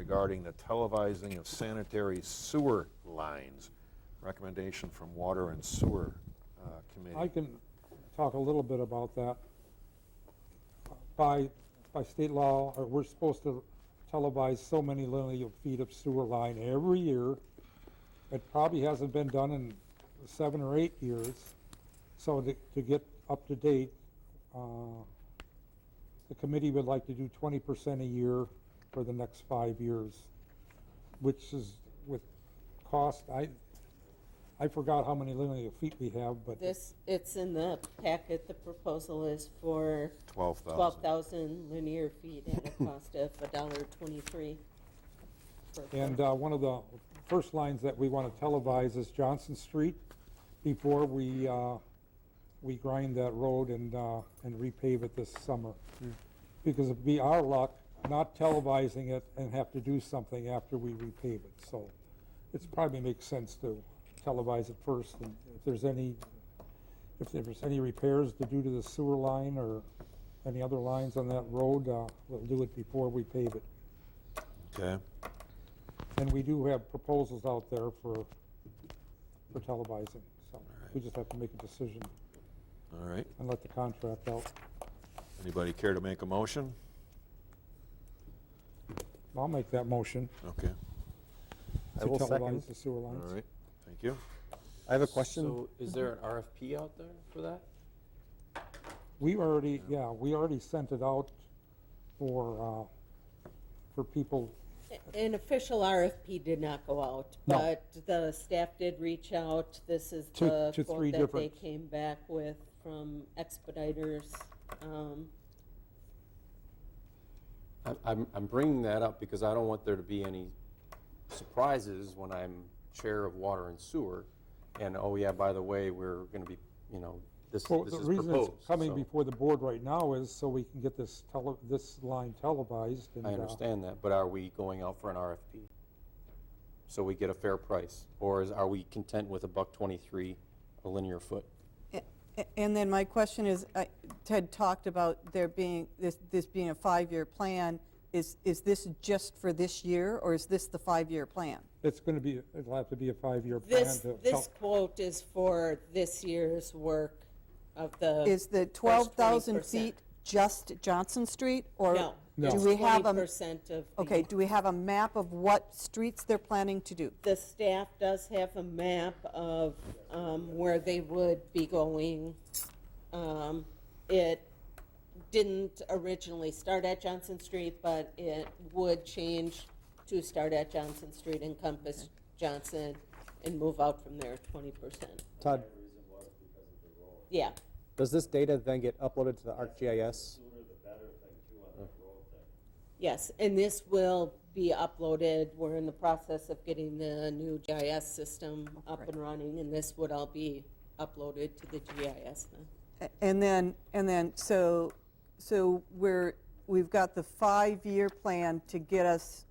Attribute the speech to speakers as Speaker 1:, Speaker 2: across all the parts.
Speaker 1: regarding the televising of sanitary sewer lines. Recommendation from Water and Sewer uh,
Speaker 2: I
Speaker 1: Committee.
Speaker 2: can talk a little bit about that. By, by state law, uh, we're supposed to televise so many linear feet of sewer line every year. It probably hasn't been done in seven or eight years. So to, to get up to date, uh, the committee would like to do twenty percent a year for the next five years, which is with cost, I, I forgot how many linear feet we have, but.
Speaker 3: This, it's in the packet, the proposal is for
Speaker 1: 12,000.
Speaker 3: twelve thousand linear feet at a cost of a dollar twenty-three. per foot.
Speaker 2: And uh, one of the first lines that we want to televise is Johnson Street before we, uh, we grind that road and, uh, and repave it this summer. Because it'd be our luck not televising it and have to do something after we repave it. So it's probably makes sense to televise it first. And if there's any, if there's any repairs to do to the sewer line or any other lines on that road, uh, we'll do it before we pave it.
Speaker 1: Okay.
Speaker 2: And we do have proposals out there for, for televising, so we just have to make a decision
Speaker 1: All right.
Speaker 2: and let the contract out.
Speaker 1: Anybody care to make a motion?
Speaker 2: I'll make that motion
Speaker 1: Okay.
Speaker 4: I
Speaker 2: to
Speaker 4: will second.
Speaker 2: televise the sewer
Speaker 1: All
Speaker 2: lines.
Speaker 1: right. Thank you.
Speaker 4: I have a question.
Speaker 5: So is there an RFP out there for that?
Speaker 2: We already, yeah, we already sent it out for, uh, for people,
Speaker 3: An official RFP did not go out,
Speaker 2: No.
Speaker 3: but the staff did reach out. This is
Speaker 2: To-
Speaker 3: the
Speaker 2: to three
Speaker 3: quote that they
Speaker 2: different-
Speaker 3: came back with from Expeditors. Um,
Speaker 5: I- I'm, I'm bringing that up because I don't want there to be any surprises when I'm chair of water and sewer. And, oh yeah, by the way, we're going to be, you know, this,
Speaker 2: well,
Speaker 5: this
Speaker 2: the
Speaker 5: is
Speaker 2: reason it's
Speaker 5: proposed.
Speaker 2: coming
Speaker 5: so
Speaker 2: before the board right now is so we can get this tele, this line televised. and,
Speaker 5: I
Speaker 2: uh,
Speaker 5: understand that, but are we going out for an RFP? So we get a fair price? Or is, are we content with a buck twenty-three a linear foot?
Speaker 6: A- And then my question is, I- Ted talked about there being, this, this being a five-year plan. Is, is this just for this year, or is this the five-year plan?
Speaker 2: It's gonna be, it'll have to be a five-year plan
Speaker 3: This,
Speaker 2: to
Speaker 3: this
Speaker 2: tel-
Speaker 3: quote is for this year's work of the.
Speaker 6: Is the
Speaker 3: first
Speaker 6: 12,000
Speaker 3: 20%.
Speaker 6: feet just Johnson Street, or?
Speaker 3: No.
Speaker 6: Do we have
Speaker 3: Twenty
Speaker 6: a,
Speaker 3: percent of. the-
Speaker 6: okay, do we have a map of what streets they're planning to do?
Speaker 3: The staff does have a map of um, where they would be going. Um, It didn't originally start at Johnson Street, but it would change to start at Johnson Street, encompass Johnson, and move out from there twenty percent.
Speaker 4: Todd,
Speaker 3: Yeah,
Speaker 4: does this data then get uploaded to the ArcGIS?
Speaker 3: yes, and this will be uploaded. We're in the process of getting the new GIS system up and running, and this would all be uploaded to the GIS now.
Speaker 6: A- And then, and then, so, so we're, we've got the five-year plan to get us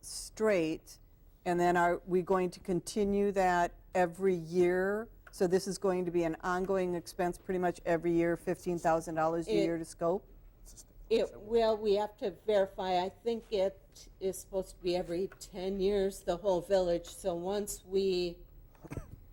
Speaker 6: straight, and then are we going to continue that every year? So this is going to be an ongoing expense pretty much every year, $15,000 a
Speaker 3: It-
Speaker 6: year to scope?
Speaker 3: It will, we have to verify, I think it is supposed to be every ten years, the whole village, so once we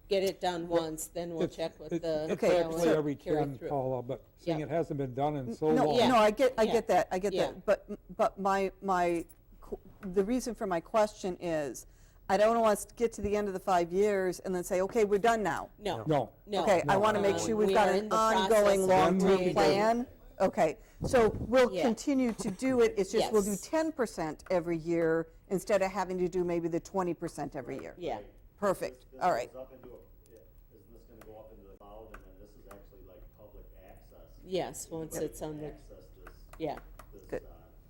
Speaker 3: get it done once, then we'll
Speaker 2: It's-
Speaker 3: check with
Speaker 2: it-
Speaker 3: the.
Speaker 2: It's
Speaker 6: Okay,
Speaker 2: actually
Speaker 6: so-
Speaker 2: every
Speaker 3: carry
Speaker 2: ten,
Speaker 3: through.
Speaker 2: Paula, but seeing
Speaker 3: Yeah.
Speaker 2: it hasn't been done in so
Speaker 6: No,
Speaker 2: long.
Speaker 3: Yeah.
Speaker 6: no, I get, I
Speaker 3: Yeah.
Speaker 6: get that, I get
Speaker 3: Yeah.
Speaker 6: that. But, but my, my, qu- the reason for my question is, I don't want us to get to the end of the five years and then say, okay, we're done now.
Speaker 3: No.
Speaker 2: No.
Speaker 3: No.
Speaker 6: Okay, I want to make
Speaker 3: Um,
Speaker 6: sure we've
Speaker 3: we
Speaker 6: got
Speaker 3: are
Speaker 6: an
Speaker 3: in the process
Speaker 6: ongoing
Speaker 3: of
Speaker 6: long-term
Speaker 3: creating-
Speaker 6: plan. Okay, so we'll
Speaker 3: Yeah.
Speaker 6: continue to do it, it's just we'll do
Speaker 3: Yes.
Speaker 6: 10% every year instead of having to do maybe the 20% every year.
Speaker 3: Yeah,
Speaker 6: Perfect, all right.
Speaker 7: This goes up into a, yeah, isn't this gonna go up into the cloud, and then this is actually like public access?
Speaker 3: yes, once
Speaker 7: Anybody
Speaker 3: it's on
Speaker 7: can
Speaker 3: the,
Speaker 7: Access this,
Speaker 3: yeah,
Speaker 7: this,
Speaker 6: Good.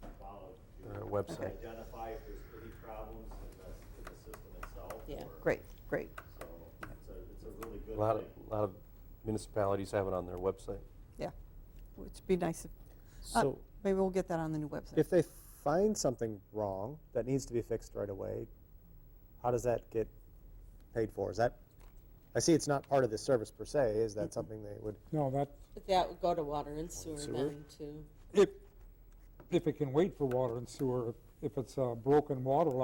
Speaker 7: uh, cloud
Speaker 5: Or a
Speaker 7: to
Speaker 5: website?
Speaker 7: identify if there's any problems in the, in the system itself.
Speaker 3: Yeah.
Speaker 7: or-
Speaker 6: Great, great.
Speaker 7: So, it's a, it's a really
Speaker 5: A
Speaker 7: good
Speaker 5: lot of,
Speaker 7: thing.
Speaker 5: a lot of municipalities have it on their website.
Speaker 6: Yeah, it'd be nice if, uh,
Speaker 4: So
Speaker 6: maybe we'll get that on the new website.
Speaker 4: if they find something wrong that needs to be fixed right away, how does that get paid for? Is that, I see it's not part of the service per se, is that something they would,
Speaker 2: No, that,
Speaker 3: but that would go to water and sewer
Speaker 4: Sewer?
Speaker 3: then too.
Speaker 2: if, if it can wait for water and sewer, if it's a uh, broken water line.